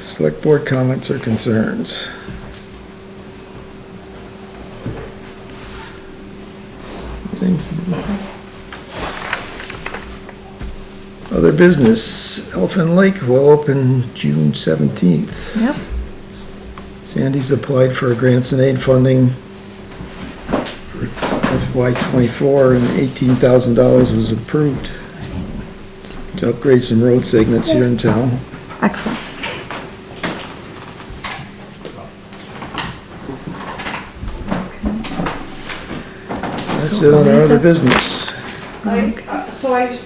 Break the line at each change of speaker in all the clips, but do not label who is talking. Select board comments or concerns. Other business, Elfin Lake will open June seventeenth.
Yep.
Sandy's applied for grants and aid funding for FY twenty-four, and eighteen thousand dollars was approved to upgrade some road segments here in town.
Excellent.
That's it on our other business.
I, uh, so I, the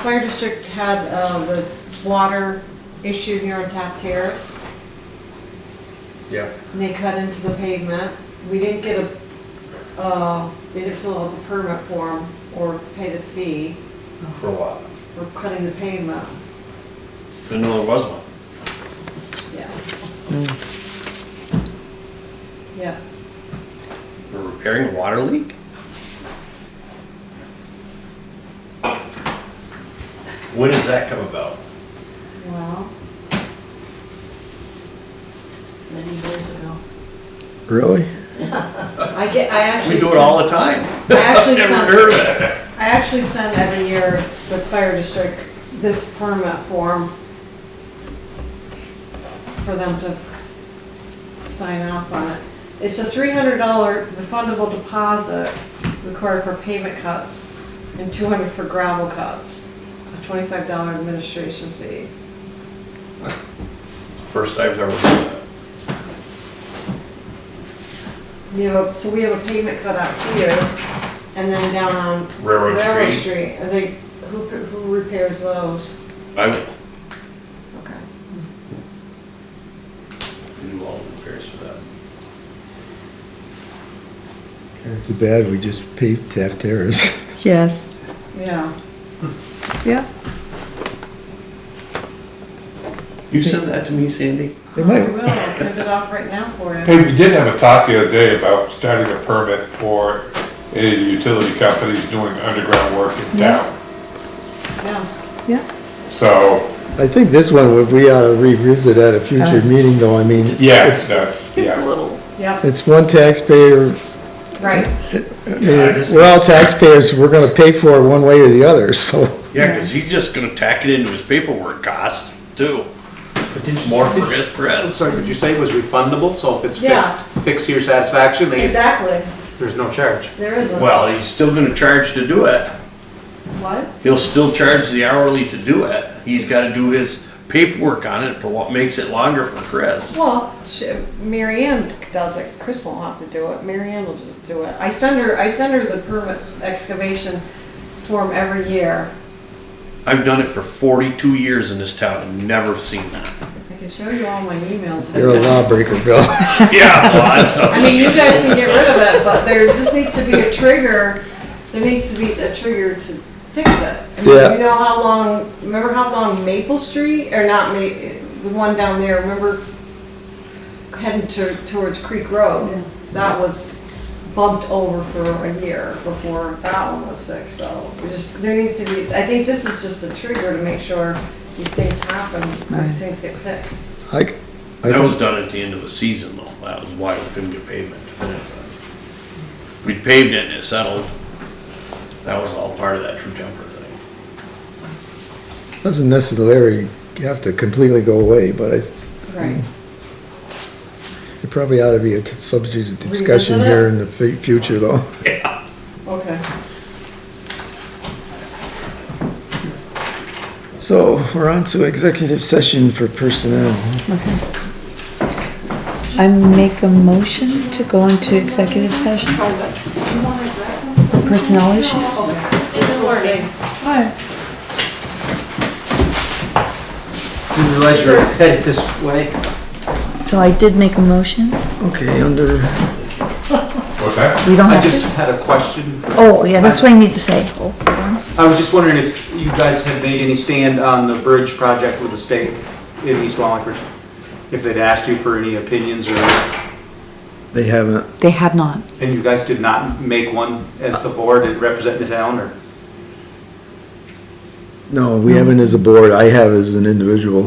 fire district had, uh, the water issue here on Taft Terrace,
Yeah,
and they cut into the pavement. We didn't get a, uh, they didn't fill out the permit form or pay the fee
for a while.
for cutting the pavement,
Didn't know there was one.
yeah. Hmm. Yeah,
We're repairing a water leak? When does that come about?
well. Many years ago.
Really?
I get, I actually.
Uh, We do it
sent-
all the time.
I actually
Never
sent-
heard of it.
I actually send every year the fire district this permit form for them to sign off on it. It's a three hundred dollar refundable deposit required for pavement cuts and two hundred for gravel cuts, a twenty-five dollar administration fee.
First I've ever heard of
You know, so we have a pavement cut out here and then down on
it. Railroad
Railroad
Street.
Street. Are they, who, who repairs those?
I will
Okay.
do all the repairs for that.
Too bad we just paved Taft Terrace.
Yes.
Yeah.
Yeah.
You send that to me, Sandy?
They
I
might,
will, I'll print it off right now for you.
Hey, we did have a talk the other day about starting a permit for any of the utility companies doing underground work in
Yeah.
town.
Yeah,
Yeah.
So,
I think this one, would- we ought to revisit at a future
Uh.
meeting though, I mean.
yeah,
it's-
that's, yeah.
yeah,
It's one taxpayer,
right.
I mean, we're all taxpayers, we're gonna pay for it one way or the other, so.
Yeah, cause he's just gonna tack it into his paperwork cost too. More for his
I'm
press.
sorry, did you say it was refundable? So if it's
Yeah.
fixed, fixed to your satisfaction, they get-
Exactly,
there's no charge?
there is a.
Well, he's still gonna charge to do it.
What?
He'll still charge the hourly to do it. He's gotta do his paperwork on it for what makes it longer for Chris.
Well, sh- Mary Ann does it, Chris won't have to do it, Mary Ann will just do it. I send her, I send her the permit excavation form every year.
I've done it for forty-two years in this town and never seen that.
I can show you all my emails.
You're a lawbreaker, Bill.
Yeah, well, that's
I mean, you guys can get rid of it, but there just needs to be a trigger, there needs to be a trigger to fix it. I mean,
Yeah.
You know how long, remember how long Maple Street, or not Ma, the one down there, remember heading to, towards Creek Road? That was bumped over for a year before that one was fixed, so we just, there needs to be, I think this is just a trigger to make sure these things happen,
Right.
these things get fixed.
I, I
That was
don't,
done at the end of the season though. That was why we couldn't get pavement to finish that. We paved it and it settled. That was all part of that true temper thing.
doesn't necessarily have to completely go away, but I,
Right.
it probably ought to be a t- subject of discussion
Revisit it?
here in the fu- future though.
Okay.
So, we're on to executive session for personnel.
I make a motion to go into executive session. Personnel issues? Why?
Didn't realize you were headed this way.
So I did make a motion.
Okay, under,
What's that?
We don't
I
have
just
to.
had a question.
Oh, yeah, that's what I need to say. Oh, hold on.
I was just wondering if you guys had made any stand on the bridge project with the state in East Wallingford? If they'd asked you for any opinions or,
they haven't,
They have not.
and you guys did not make one as the board and represent the town or?
no, we haven't as a board, I have as an individual.